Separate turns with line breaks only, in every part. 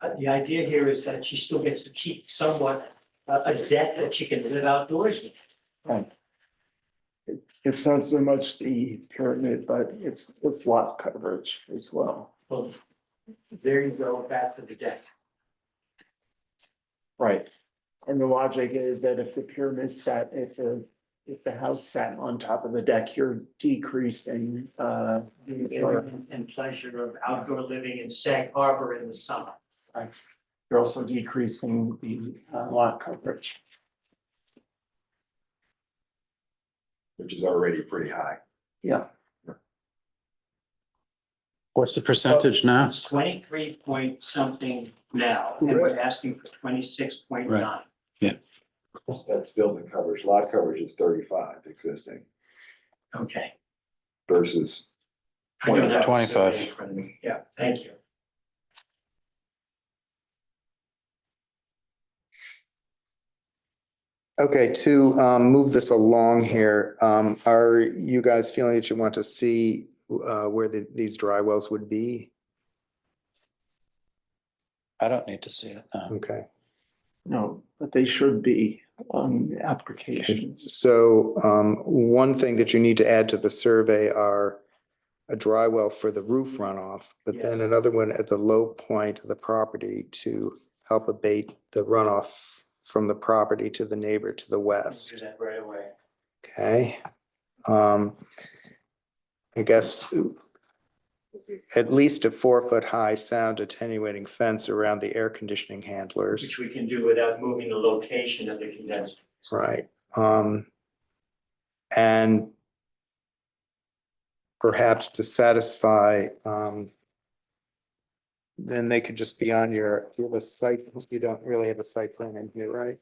uh, the idea here is that she still gets to keep somewhat uh, a deck that she can live outdoors with.
It's not so much the pyramid, but it's, it's lot coverage as well.
Well, there you go, back to the deck.
Right. And the logic is that if the pyramid sat, if the, if the house sat on top of the deck, you're decreasing, uh.
the
Sure.
enjoyment and pleasure of outdoor living in Sag Harbor in the summer.
You're also decreasing the uh, lot coverage.
which is already pretty high.
What's the percentage now?
It's twenty-three point something now, and we're asking for twenty-six point nine.
That's building coverage. Lot coverage is thirty-five existing
Okay.
versus
I don't have the
25.
survey in front of me. Yeah, thank you.
Okay, to um move this along here, um are you guys feeling that you want to see uh where the these dry wells would be?
I don't need to see it now.
Okay,
No, but they should be on applications.
so um one thing that you need to add to the survey are a dry well for the roof runoff, but then another one at the low point of the property to help abate the runoff from the property to the neighbor to the west.
Do that right away.
Okay. Um, I guess at least a four-foot-high sound attenuating fence around the air conditioning handlers,
Which we can do without moving the location of the condenser.
right? Um, and perhaps to satisfy, um, then they could just be on your, you have a site, you don't really have a site plan in here, right?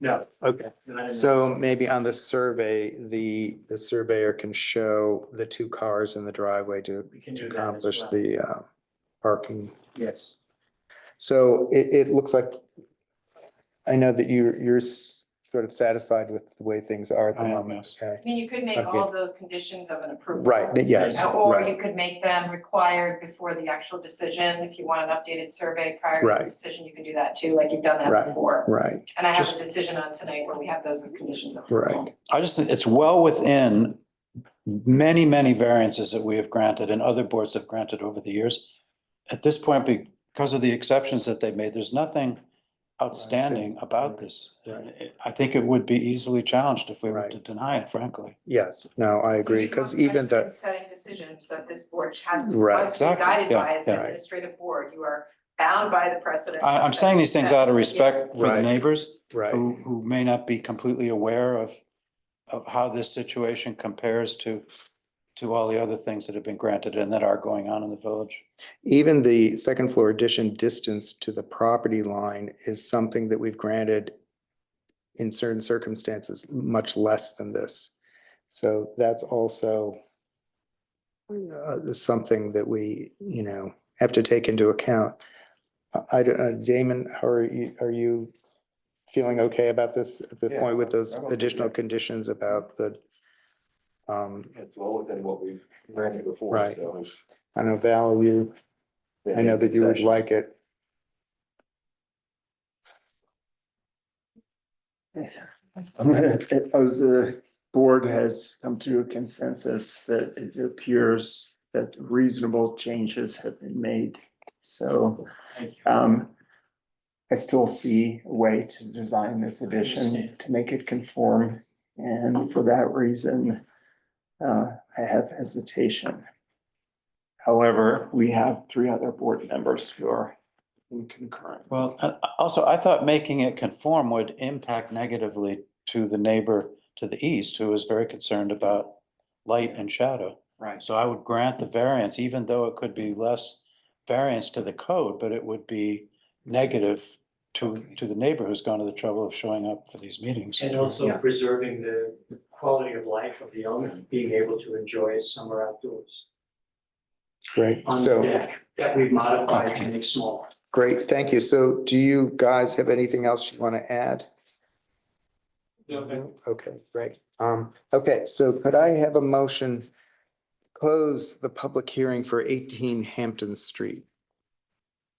No.
Okay.
not in the-
So maybe on the survey, the, the surveyor can show the two cars in the driveway to
We can do that as
accomplish
well.
the uh, parking.
Yes,
So it, it looks like, I know that you're, you're s- sort of satisfied with the way things are at the
I am,
moment.
yes.
Okay,
I mean, you could make
Okay.
all of those conditions of an approval.
Right, yes,
Uh, Or
right.
you could make them required before the actual decision. If you want an updated survey prior to
Right.
the decision, you can do that too, like you've done
Right.
that before.
Right,
And I have a
Just-
decision on tonight where we have those as conditions of approval.
right,
I just think it's well within many, many variances that we have granted and other boards have granted over the years. At this point, because of the exceptions that they made, there's nothing outstanding about this.
Right.
I think it would be easily challenged if we were to
Right.
deny it, frankly.
yes, no, I agree, because even the,
Setting decisions that this board has to,
Right.
must be
Exactly,
guided
yeah,
by as
yeah.
an administrative board. You are bound by the precedent.
I, I'm saying these things out of respect for the
Right.
neighbors
right,
who, who may not be completely aware of, of how this situation compares to, to all the other things that have been granted and that are going on in the village.
even the second floor addition distance to the property line is something that we've granted in certain circumstances, much less than this. So that's also uh, something that we, you know, have to take into account. I- I, don't- uh, Damon, how are you, are you feeling okay about this at the
Yeah,
point with those
I'm okay,
additional
yeah.
conditions about the, um,
it's well within what we've granted before.
Right.
so it's-
I know Val, you, I know that you would like it.
As the board has come to a consensus that it appears that reasonable changes have been made. So
thank you.
um. I still see a way to design this addition
understand.
to make it conform and for that reason. Uh, I have hesitation. However, we have three other board members who are in concurrence.
Well, a- a- also, I thought making it conform would impact negatively to the neighbor to the east, who is very concerned about light and shadow.
Right.
So I would grant the variance, even though it could be less variance to the code, but it would be negative to, to the neighbor who's gone to the trouble of showing up for these meetings.
And also preserving the quality of life of the owner, being able to enjoy his summer outdoors
Great,
on the
so.
deck that we modified to make smaller.
Great, thank you. So do you guys have anything else you want to add? Okay, great. Um, okay, so could I have a motion? Close the public hearing for eighteen Hampton Street.